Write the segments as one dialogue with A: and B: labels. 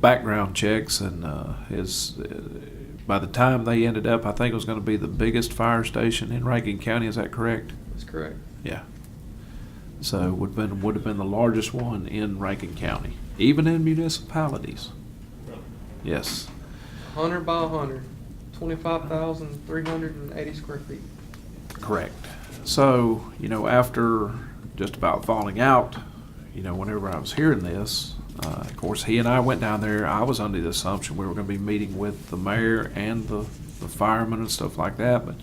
A: background checks and uh, his, uh, by the time they ended up, I think it was going to be the biggest fire station in Rankin County. Is that correct?
B: That's correct.
A: Yeah. So would been would have been the largest one in Rankin County, even in municipalities. Yes.
B: Hundred by hundred, twenty-five thousand, three hundred and eighty square feet.
A: Correct. So, you know, after just about falling out, you know, whenever I was hearing this, uh, of course, he and I went down there. I was under the assumption we were going to be meeting with the mayor and the, the firemen and stuff like that, but.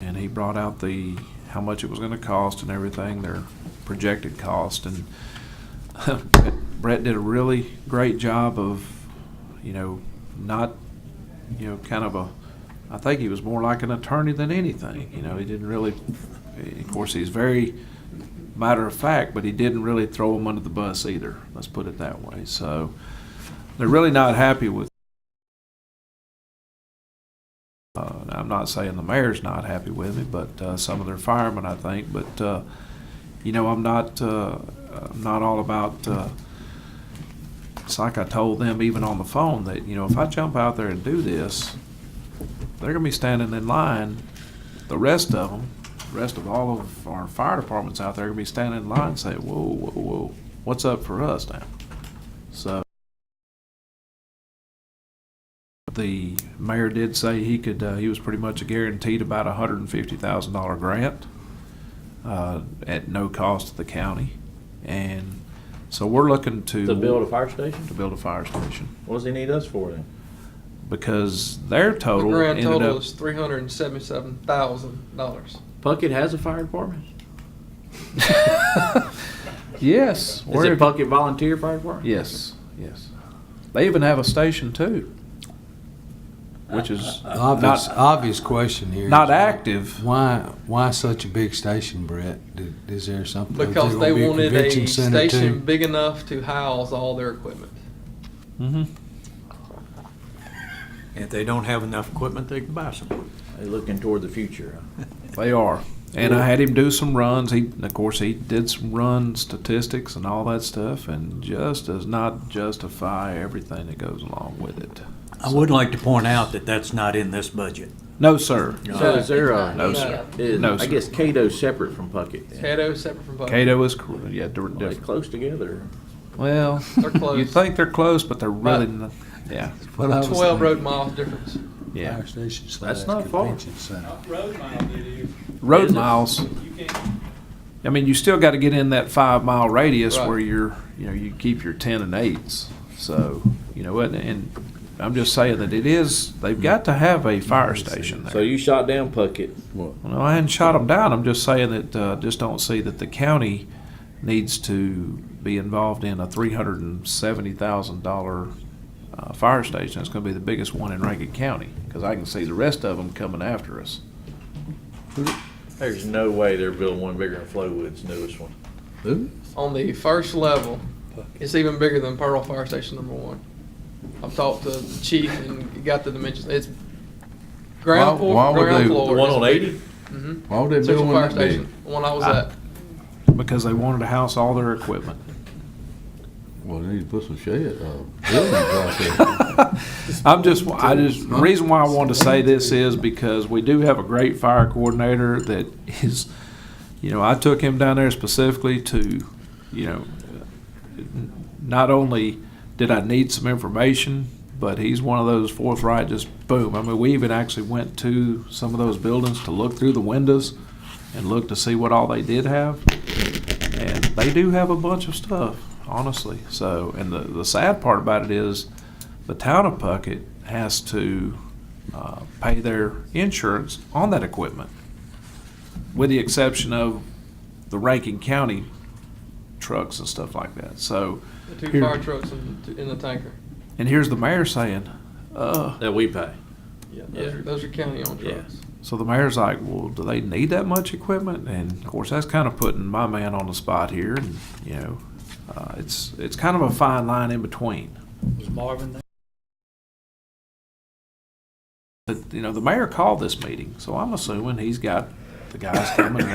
A: And he brought out the, how much it was going to cost and everything, their projected cost. And Brett did a really great job of, you know, not you know, kind of a, I think he was more like an attorney than anything. You know, he didn't really, of course, he's very matter of fact, but he didn't really throw him under the bus either. Let's put it that way. So they're really not happy with. Uh, and I'm not saying the mayor's not happy with me, but uh, some of their firemen, I think. But uh, you know, I'm not, uh, I'm not all about. Uh, it's like I told them even on the phone that, you know, if I jump out there and do this, they're gonna be standing in line, the rest of them, the rest of all of our fire departments out there are gonna be standing in line and say, whoa, whoa, whoa, what's up for us now? So. The mayor did say he could, uh, he was pretty much guaranteed about a hundred and fifty thousand dollar grant, uh, at no cost to the county. And so we're looking to.
C: To build a fire station?
A: to build a fire station
C: What does he need us for then?
A: because their
B: The
A: total
B: grand
A: ended
B: total
A: up.
B: is three hundred and seventy-seven thousand dollars.
C: Puckett has a fire department?
A: yes,
C: Is
A: where-
C: it Puckett Volunteer Fire Department?
A: yes, yes. They even have a station too, which is
D: Uh, Obvious,
A: not
D: obvious question here.
A: not
D: is
A: active.
D: Why, why such a big station, Brett? Did- Is there something? is there
B: Because
D: gonna
B: they
D: be a
B: wanted
D: convention
B: a
D: center, too?
B: station big enough to house all their equipment.
A: hmm
E: If they don't have enough equipment, they can buy some.
C: They're looking toward the future.
A: They are, and I had him do some runs. He, of course, he did some run statistics and all that stuff, and just does not justify everything that goes along with it.
E: I would like to point out that that's not in this budget.
A: No, sir.
C: So is there a?
A: No, sir.
C: Is,
A: No,
C: I
A: sir.
C: guess Cato's separate from Puckett then.
B: Cato is separate from Buckeye.
A: Cato is cor- yeah they're
C: Well, They're
A: different.
C: close together.
A: Well,
B: They're close.
A: you think they're close, but they're really
B: But-
A: not. Yeah,
D: What I was
B: Twelve road
D: thinking,
B: miles difference.
A: yeah.
D: Fire station slash
C: not far.
D: convention center.
F: road mile, did you?
A: road
C: Is it?
A: miles.
F: You can't
A: I mean, you still got to get in that five mile radius
B: Right.
A: where you're, you know, you keep your ten and eights. So, you know, and, and I'm just saying that it is. They've got to have a fire station
C: So
A: there.
C: you shot down Puckett.
A: No, I hadn't shot them down. I'm just saying that uh, just don't see that the county needs to be involved in a three hundred and seventy thousand dollar uh, fire station. That's going to be the biggest one in Rankin County because I can see the rest of them coming after us.
C: There's no way they're building one bigger than Flowwood's newest one.
B: On the first level, it's even bigger than Pearl Fire Station Number One. I've talked to the chief and got the dimensions. It's ground floor,
G: Why- why
B: from
G: would
B: ground
G: they-
B: floor.
C: The one on eighty?
B: Mm-hmm.
G: Why would they build
B: Central
G: one
B: Fire
G: that big?
B: Station, the one I was at.
A: Because they wanted to house all their equipment.
G: Well, they need to put some shed, uh, buildings out there.
A: I'm just, I just, the reason why I wanted to say this is because we do have a great fire coordinator that is, you know, I took him down there specifically to, you know, not only did I need some information, but he's one of those forthright, just boom. I mean, we even actually went to some of those buildings to look through the windows and look to see what all they did have. And they do have a bunch of stuff, honestly. So, and the, the sad part about it is the town of Puckett has to uh, pay their insurance on that equipment, with the exception of the Rankin County trucks and stuff like that. So,
B: The two
A: Here.
B: fire trucks in, in the tanker.
A: and here's the mayor saying, uh,
C: That we pay.
B: Yeah, those,
C: Yeah.
B: Are, those are county owned
C: Yeah.
B: trucks.
A: so the mayor's like, well, do they need that much equipment? And of course, that's kind of putting my man on the spot here, and you know, uh, it's it's kind of a fine line in between.
E: Was Marvin there?
A: But you know, the mayor called this meeting, so I'm assuming he's got the guys coming